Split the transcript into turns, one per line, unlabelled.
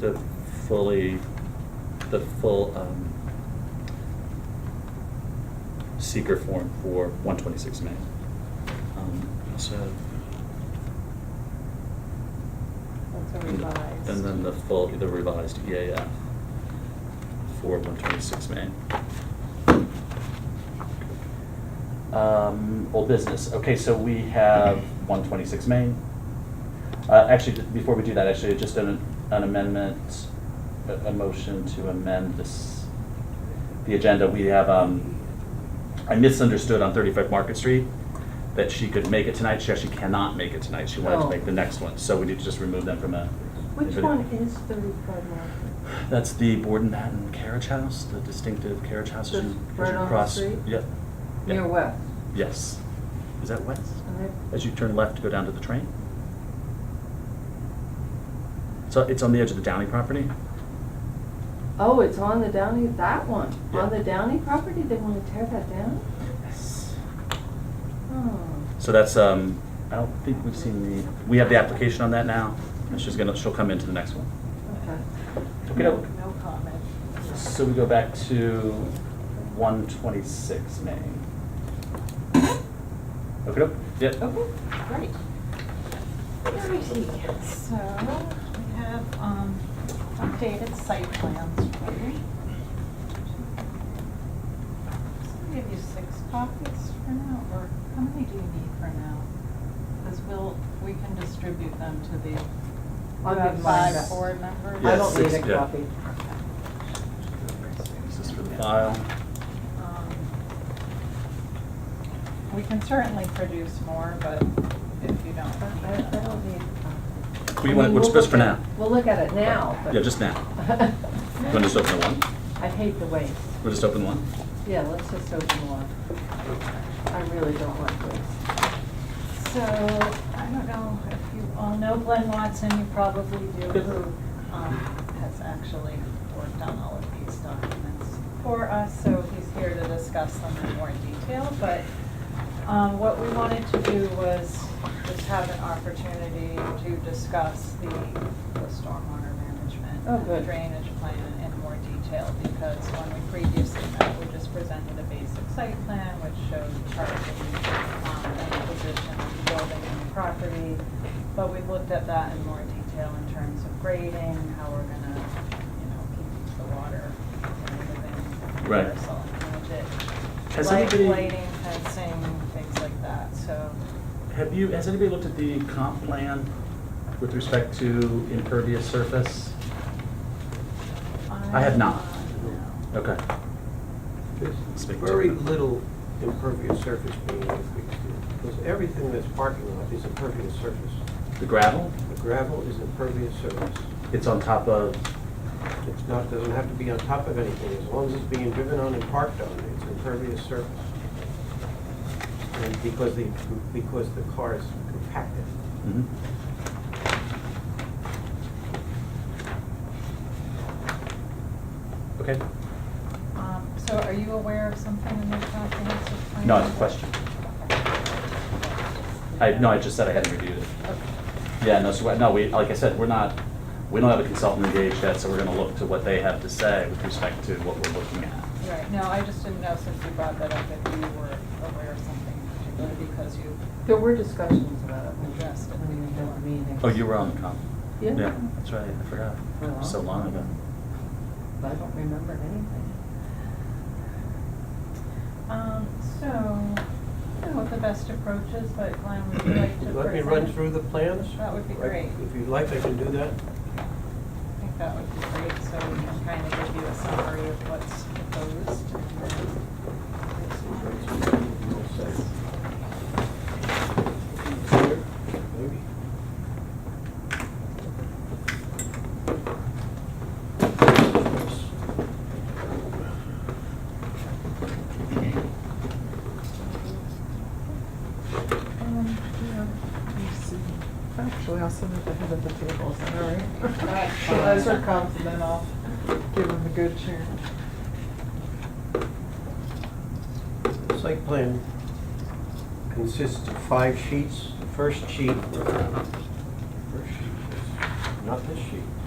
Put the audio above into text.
the fully, the full, um, seeker form for one twenty-six Main. Um, So,
That's a
and
revised.
and then the full, the revised EAF for one twenty-six Main. Um, old business, okay, so we have one twenty-six Main. Uh, actually, th- before we do that, actually, just an, an amendment, a, a motion to amend this, the agenda, we have, um, I misunderstood on thirty-five Market Street that she could make it tonight, she actually cannot make it tonight, she wanted to
Oh.
make the next one, so we need to just remove them from a.
Which
anybody-
one is thirty-five Market?
That's the Borden Patton Carriage House, the distinctive carriage house. as you- as
That's right
you
on the
cross-
street?
Yep. Yep.
Near West.
Yes. Is that west?
And it-
as you turn left to go down to the train. So it's on the edge of the Downey property?
Oh, it's on the Downey, that one,
Yeah.
on the Downey property, they wanna tear that down?
Yes.
Oh,
So that's, um, I don't think we've seen the, we have the application on that now, and she's gonna, she'll come into the next one.
okay.
Okay,
No comment.
so we go back to one twenty-six Main. Okay, yep,
Okay, great.
Alrighty, so we have um, updated site plans for you. So I'll give you six copies for now, or how many do you need for now? Because we'll, we can distribute them to the
I'll
you have
give mine
five
back.
board members.
Yeah,
I don't need a
six, yeah.
copy.
this is for the file.
Um, We can certainly produce more, but if you don't.
I, I
need them.
don't need a copy.
What do you
I
want,
mean,
what's
we'll
best for
look at-
now?
We'll look at it now, but.
Yeah, just now. You wanna just open the one?
I hate the waste.
We'll just open one?
Yeah, let's just open one. I really don't like waste.
So, I don't know if you all know Glenn Watson, you probably do, who um, has actually worked on all of these documents for us, so he's here to discuss them in more detail, but um, what we wanted to do was just have an opportunity to discuss the the stormwater management
Oh, good.
drainage plan in more detail, because when we previously met, we just presented a basic site plan, which showed parking, um, and the position of the building and the property. But we've looked at that in more detail in terms of grading, how we're gonna, you know, keep the water within the
Right.
parcel and manage it.
Has
Light-
anybody-
Lighting, fencing, things like that, so.
Have you, has anybody looked at the comp plan with respect to impervious surface? I have not.
No.
Okay.
There's
Speak to
very
them.
little impervious surface being used, because everything that's parking lot is impervious surface.
The gravel,
The gravel is impervious surface.
it's on top of,
It's not, doesn't have to be on top of anything, as long as it's being driven on and parked on, it's impervious surface. And because the, because the car is compacted.
Mhm. Okay,
Um, So are you aware of something in the comprehensive plan?
no, it's a question. I, no, I just said I hadn't reviewed it.
Okay.
Yeah, no, so, no, we, like I said, we're not, we don't have a consultant engaged yet, so we're gonna look to what they have to say with respect to what we're looking at.
Right, no, I just didn't know since you brought that up if you were aware of something in particular because you
There were discussions about it. when-
addressed it
when we had the
before.
meeting.
Oh, you were on the comp?
Yeah,
That's right, I forgot, It was so long ago.
but I don't remember anything.
Um, so, I don't know what the best approach is, but Glenn, would you like to present?
Let me run through the plans.
That would be
Right,
great.
If you'd like, I can do that.
I think that would be great, so we can kind of give you a summary of what's proposed.
Maybe.
Um,
Actually, I'll send it to him at the table, is that all right?
Right.
Those are comes, and then I'll give him a good chair.
Site plan consists of five sheets. The first sheet, first sheet is not this sheet.